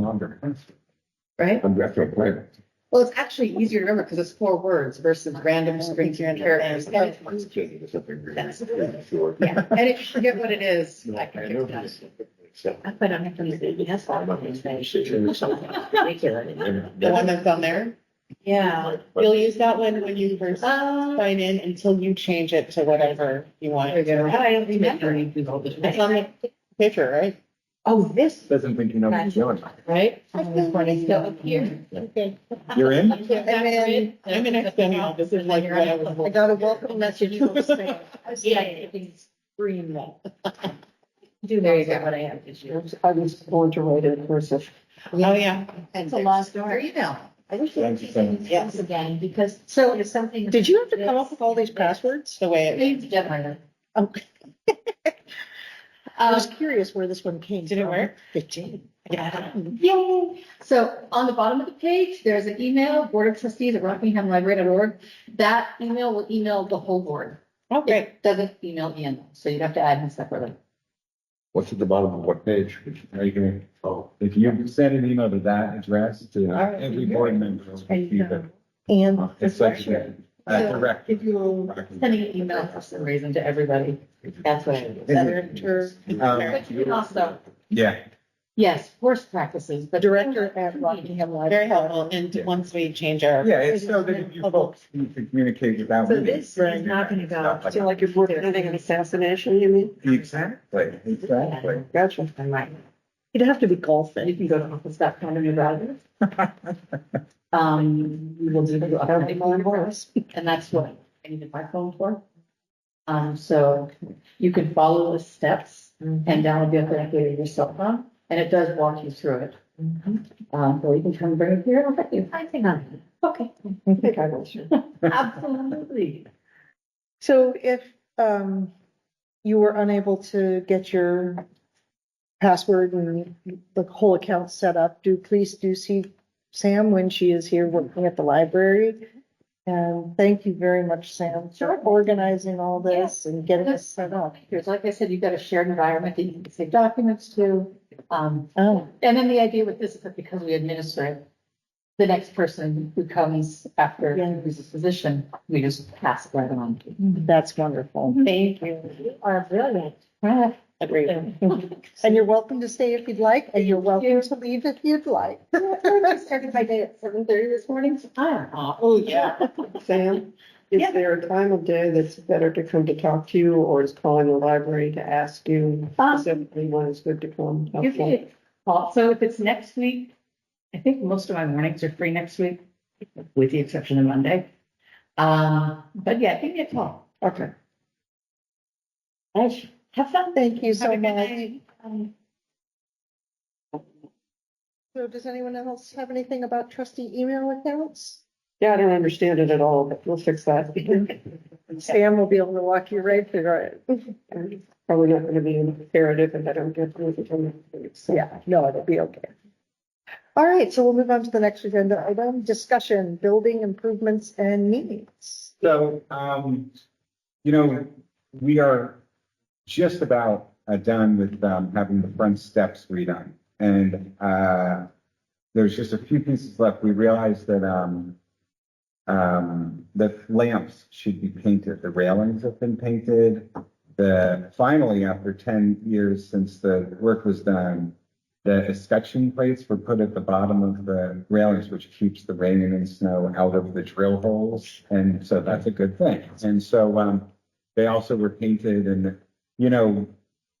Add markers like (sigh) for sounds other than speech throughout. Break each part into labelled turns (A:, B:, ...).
A: longer.
B: right?
A: I'm back to a plan.
B: Well, it's actually easier to remember because it's four words versus random strings of characters.
A: Yeah,
B: And
A: it's changing to something really-
B: That's-
A: really short.
B: if you forget what it is, I
A: No, I
B: can
A: know
B: fix that.
A: this. So,
C: I put on my phone, yes,
A: I'm
C: I'm
A: not
C: on
A: gonna
C: this
A: say
C: thing.
A: shit or something.
C: Ridiculous.
B: The one that's on there?
C: Yeah.
D: You'll use that one when you first
C: Uh,
D: sign in until you change it to whatever you want.
B: There you
D: It's
B: go.
C: I don't remember.
D: on the picture, right?
C: Oh, this,
A: Doesn't think you know what you're doing.
B: Right?
C: so up here.
D: Okay.
A: You're in?
C: And then-
D: I'm an external. This is like what I was.
E: Oh,
C: got a welcome message. from Sam. Yeah, I can scream that. (laughs) Do
B: There you
C: lots of
B: go.
C: what I have to do.
E: I was born to write in cursive.
D: Oh, yeah.
B: It's
C: a long story.
B: Your email.
C: I wish
A: Thank you, Sam.
C: these things again, because
D: So,
C: there's something.
D: Did you have to come up with all these passwords the way? it-
C: They've done it.
D: Oh. (laughs)
E: I
C: Um,
E: was curious where this one came from.
D: Did it work?
E: It did.
D: Yeah.
C: Yay! So on the bottom of the page, there's an email, Board of Trustees at rockinghamlibrary.org. That email will email the whole board.
D: Okay.
C: It doesn't email Ian, so you'd have to add him separately.
A: What's at the bottom of what page? Are you gonna, oh, if you send an email to that address to every board member. it'll be the-
E: And
A: It's like, uh, direct.
C: If you're sending an email for some reason to everybody, that's what it is.
D: Senator.
A: Um,
C: But you can also,
A: Yeah.
C: yes, worst practices, but.
E: director at Rockingham Library.
D: Very helpful. And once we change our.
A: Yeah, it's so that if you folks need to communicate without.
C: So
A: me,
C: this is not gonna go.
A: stuff like
E: So like if we're planning an assassination, you mean?
A: (laughs) Exactly, exactly.
E: Gotcha.
C: I'm right.
E: It'd have to be
C: And you
E: golfing.
C: can go to office.com and your browser. Um, we will do the update more and more, and that's what I needed my phone for. Um, so you can follow the steps
E: Mm-hmm.
C: and download the authenticator to your cell phone, and it does walk you through it.
E: Mm-hmm.
C: Um, or you can come bring it here, and I'll let you. I think I'm. Okay,
E: I think I will.
C: (laughs) absolutely.
E: So if um you were unable to get your password and the whole account set up, do please do see Sam when she is here working at the library. And thank you very much, Sam, for
C: Sure.
E: organizing all this and getting us set up.
C: Here's, like I said, you've got a shared environment that you can save documents to. Um,
E: Oh,
C: and then the idea with this is that because we administer it, the next person who comes after
E: Yeah.
C: who's a physician, we just pass it right on to.
D: (laughs)
E: that's wonderful.
C: Thank you. You are brilliant.
D: Agreed.
E: And you're welcome to stay if you'd like, and you're welcome to leave if you'd like.
C: I started my day at seven thirty this morning.
D: Oh, yeah.
F: Sam,
C: Yeah.
F: is there a time of day that's better to come to talk to you or is calling the library to ask you
C: Um,
F: specifically when it's good to come?
C: You can, also, if it's next week, I think most of my mornings are free next week, with the exception of Monday. Uh, but yeah, give me a call.
F: Okay.
C: Nice. Have fun.
E: Thank you
C: Have
E: so
C: a good
E: much.
C: night. Um,
E: So does anyone else have anything about trustee email accounts?
F: Yeah, I don't understand it at all, but we'll fix that. (laughs)
E: Sam will be able to walk you right through it.
F: I'm Probably not gonna be imperative if I don't get to it. so.
E: Yeah, no, it'll be okay. All right, so we'll move on to the next agenda item, discussion, building improvements and needs.
A: So, um, you know, we are just about uh, done with, um, having the front steps redone. And, uh, there's just a few pieces left. We realized that, um, um, the lamps should be painted. The railings have been painted. The, finally, after ten years since the work was done, the escutcheon plates were put at the bottom of the railings, which keeps the rain and snow out of the drill holes. And so that's a good thing. And so, um, they also were painted and, you know,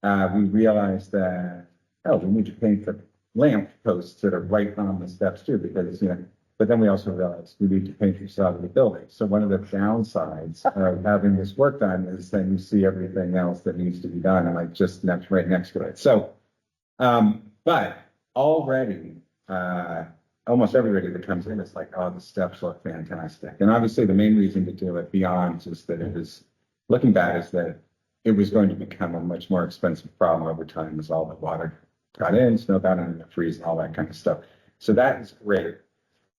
A: uh, we realized that, oh, we need to paint the lamp posts that are right on the steps too, because, you know, but then we also realized we need to paint the side of the building. So one of the downsides of having this work done is then you see everything else that needs to be done and like just next, right next to it. So, um, but already, uh, almost everybody that comes in is like, oh, the steps look fantastic. And obviously, the main reason to do it beyond just that it is looking bad is that it was going to become a much more expensive problem over time as all the water got in, snow got in, and it freeze, and all that kind of stuff. So that is great.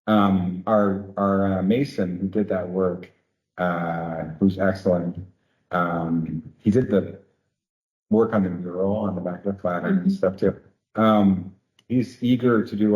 A: Um, our, our uh, mason who did that work, uh, who's excellent, um, he did the work on the mural on the back of the flat and stuff too. Um, he's eager to do a